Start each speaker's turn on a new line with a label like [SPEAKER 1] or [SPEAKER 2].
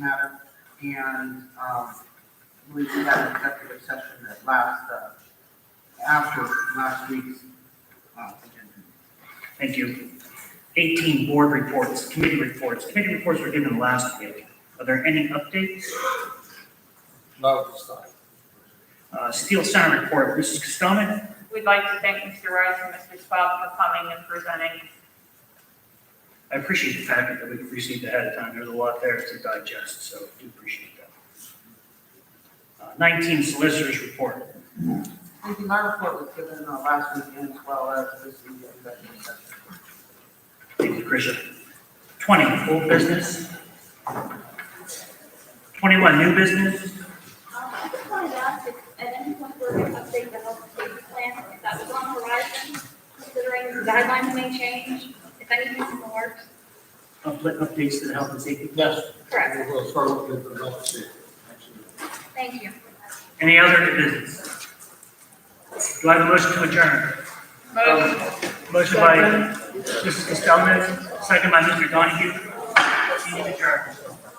[SPEAKER 1] matter, and, um, we had an executive session that last, uh, after last week's, uh, agenda.
[SPEAKER 2] Thank you. 18, board reports, committee reports. Committee reports were given last week. Are there any updates?
[SPEAKER 3] Not at this time.
[SPEAKER 2] Uh, Steel Center report, Mrs. Costomen?
[SPEAKER 4] We'd like to thank Mr. Rice and Mr. Swab for coming and presenting.
[SPEAKER 2] I appreciate the fact that we received ahead of time. There's a lot there to digest, so I do appreciate that. Uh, 19, solicitors report.
[SPEAKER 1] Thank you. My report was given, uh, last weekend as well as this week's executive session.
[SPEAKER 2] Thank you, Tricia. 20, old business. 21, new business.
[SPEAKER 5] Um, I just wanted to ask if at any point we're going to update the health and safety plan, if that was on the horizon, considering the guidelines may change, if anything's in the works.
[SPEAKER 2] Upla- Updates to the health and safety.
[SPEAKER 3] Yes.
[SPEAKER 5] Correct,
[SPEAKER 3] We'll start with the next year.
[SPEAKER 5] thank you.
[SPEAKER 2] Any other business? Do I have a motion to adjourn?
[SPEAKER 4] Motion.
[SPEAKER 2] Motion by Mrs. Costello, second by Mr. Donahue. Meeting adjourned.